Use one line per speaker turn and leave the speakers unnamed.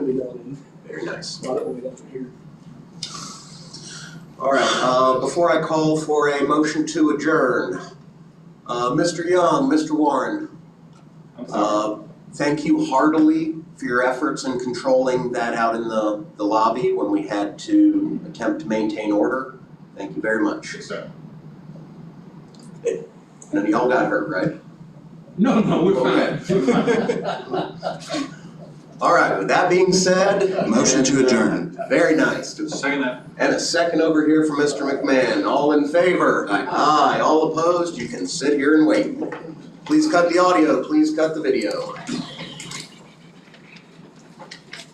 be done in
Very nice.
a lot of way down here.
All right, uh, before I call for a motion to adjourn, uh, Mr. Young, Mr. Warren,
I'm sorry.
uh, thank you heartily for your efforts in controlling that out in the, the lobby when we had to attempt to maintain order. Thank you very much.
Yes, sir.
None of y'all got hurt, right?
No, no, we're
Okay.
fine. We're fine.
All right, with that being said.
Motion to
and, uh,
adjourn.
Very nice.
Second that.
And a second over here from Mr. McMahon. All in favor? Aye. All opposed? You can sit here and wait. Please cut the audio, please cut the video.